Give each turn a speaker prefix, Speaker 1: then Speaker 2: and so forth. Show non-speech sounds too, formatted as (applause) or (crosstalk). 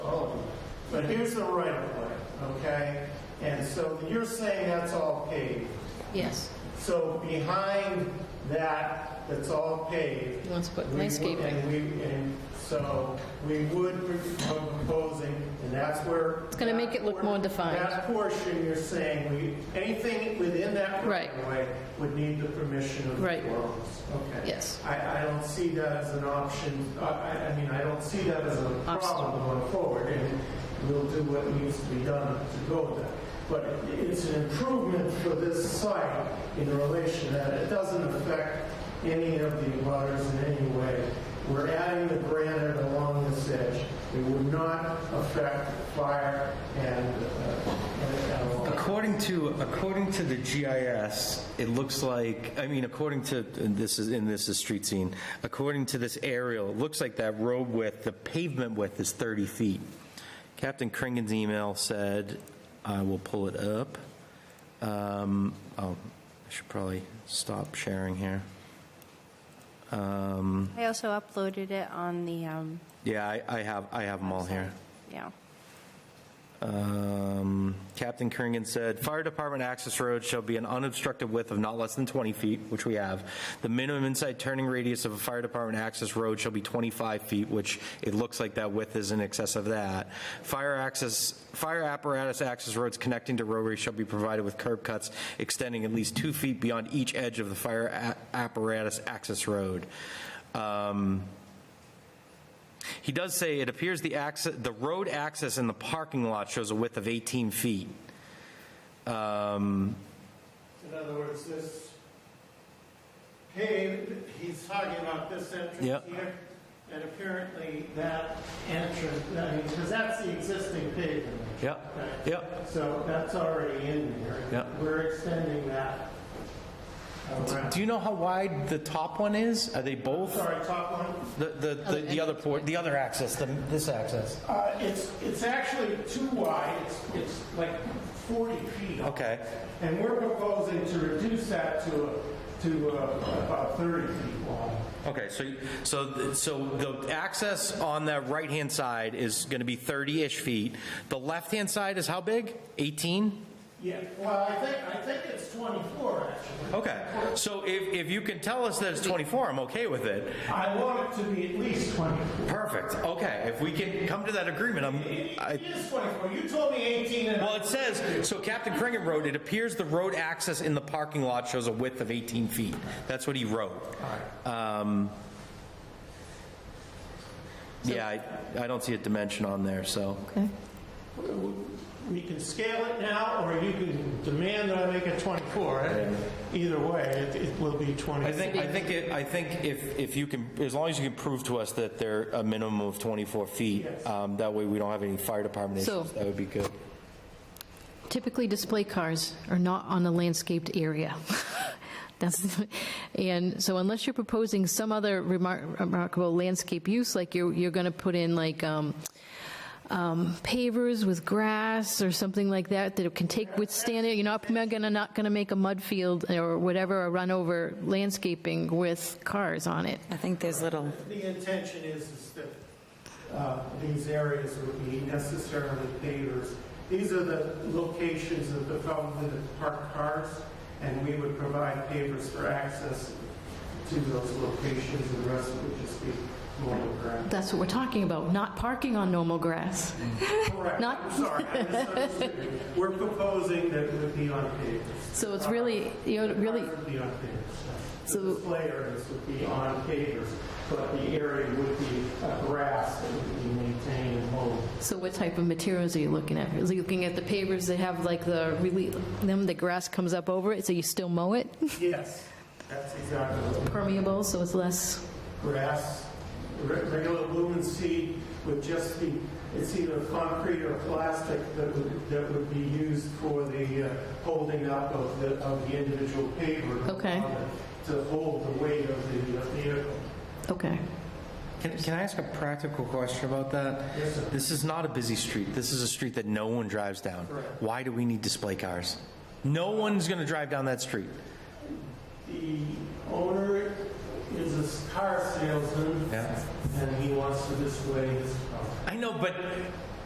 Speaker 1: Oh, But here's the right of way, okay? And so you're saying that's all paved.
Speaker 2: Yes,
Speaker 1: So behind that, that's all paved.
Speaker 2: he wants to put
Speaker 1: we would-
Speaker 2: landscaping.
Speaker 1: And we, and so we would be proposing, and that's where.
Speaker 2: It's gonna make it look more defined.
Speaker 1: That portion, you're saying, we, anything within that right
Speaker 2: Right.
Speaker 1: of way would need the permission of the
Speaker 2: Right.
Speaker 1: boroughs. Okay.
Speaker 2: Yes.
Speaker 1: I, I don't see that as an option, I, I I mean, I don't see that as a
Speaker 2: Obstacle.
Speaker 1: problem going forward, and we'll do what needs to be done to go there. But it- it's an improvement for this site in relation that it doesn't affect any of the waters in any way. We're adding the granite along this edge. It would not affect fire and, uh, and- and all.
Speaker 3: According to, according to the GIS, it looks like, I mean, according to, and this is, and this is street scene, according to this aerial, it looks like that road width, the pavement width is 30 feet. Captain Kringan's email said, I will pull it up. Um, Oh, I should probably stop sharing here.
Speaker 4: I also uploaded it on the, um,
Speaker 3: Yeah, I I have, I have them all here.
Speaker 4: yeah.
Speaker 3: Um, Captain Kringen said, "Fire department access road shall be an unobstructed width of not less than 20 feet," which we have. "The minimum inside turning radius of a fire department access road shall be 25 feet," which it looks like that width is in excess of that. "Fire access, fire apparatus access roads connecting to roadways shall be provided with curb cuts extending at least two feet beyond each edge of the fire a- apparatus access road." Um, he does say it appears the access, the road access in the parking lot shows a width of 18 feet.
Speaker 1: In other words, this paved, he's talking about this entrance
Speaker 3: Yeah.
Speaker 1: here, and apparently that entrance, because that's the existing pavement.
Speaker 3: Yep, yep.
Speaker 1: So that's already in there.
Speaker 3: Yeah.
Speaker 1: We're extending that around.
Speaker 3: Do you know how wide the top one is? Are they both?
Speaker 1: Sorry, top one.
Speaker 3: The, the, the- the other port, the other access, the- this access?
Speaker 1: Uh, It's, it's actually too wide, it's, it's like 40 feet.
Speaker 3: Okay.
Speaker 1: And we're proposing to reduce that to, a- to uh, about 30 feet wide.
Speaker 3: Okay, so, so, th- so the access on the right-hand side is going to be 30-ish feet. The left-hand side is how big? 18?
Speaker 1: Yeah, well, I think, I think it's 24, actually.
Speaker 3: Okay, so if, if you can tell us that it's 24, I'm okay with it.
Speaker 1: I want it to be at least 24.
Speaker 3: Perfect, okay, if we can come to that agreement, I'm, I,
Speaker 1: It is 24, you told me 18 and...
Speaker 3: Well, it says, so Captain Kringen wrote, "It appears the road access in the parking lot shows a width of 18 feet." That's what he wrote. Um, Yeah, I I don't see a dimension on there, so.
Speaker 1: We can scale it now, or you can demand that I make it 24. Either way, it it will be 24.
Speaker 3: I think, I think, it- I think if, if you can, as long as you can prove to us that they're a minimum of 24 feet, um, that way we don't have any fire department
Speaker 2: So-
Speaker 3: issues, that would be good.
Speaker 2: Typically, display cars are not on a landscaped area. (laughs) That's, (laughs) and so unless you're proposing some other remar- remarkable landscape use, like you're, you're going to put in like um, um, pavers with grass or something like that, that it can take withstand it, you're not going to, not going to make a mud field or whatever, a run over landscaping with cars on it.
Speaker 5: I think there's little,
Speaker 1: The intention is is that uh, these areas would be necessarily pavers. These are the locations of the, probably the parked cars, and we would provide pavers for access to those locations, the rest would just be mobile
Speaker 2: (laughs)
Speaker 1: ground.
Speaker 2: That's what we're talking about, not parking on normal grass.
Speaker 1: Correct,
Speaker 2: Not-
Speaker 1: I'm sorry, I misunderstood. you. We're proposing that it would be on pavers.
Speaker 2: So it's really, you know, really,
Speaker 1: Cars would be on pavers. The
Speaker 2: So-
Speaker 1: display areas would be on pavers, but the area would be uh, grass that would be maintained and mowed.
Speaker 2: So what type of materials are you looking at? Is he looking at the pavers that have like the, really- them, the grass comes up over it, so you still mow it?
Speaker 1: Yes, that's exactly what
Speaker 2: Permeable, so it's less,
Speaker 1: grass, re- regular lumen seed would just be, it's either concrete or plastic that would, that would be used for the uh, holding up of the, of the individual paver.
Speaker 2: Okay.
Speaker 1: To hold the weight of the uh, vehicle.
Speaker 2: okay.
Speaker 3: Can, can I ask a practical question about that?
Speaker 1: Yes, sir.
Speaker 3: This is not a busy street. This is a street that no one drives down.
Speaker 1: Correct.
Speaker 3: Why do we need display cars? No one's going to drive down that street.
Speaker 1: The owner is a s- car salesman,
Speaker 3: Yeah.
Speaker 1: and he wants to display his car.
Speaker 3: I know, but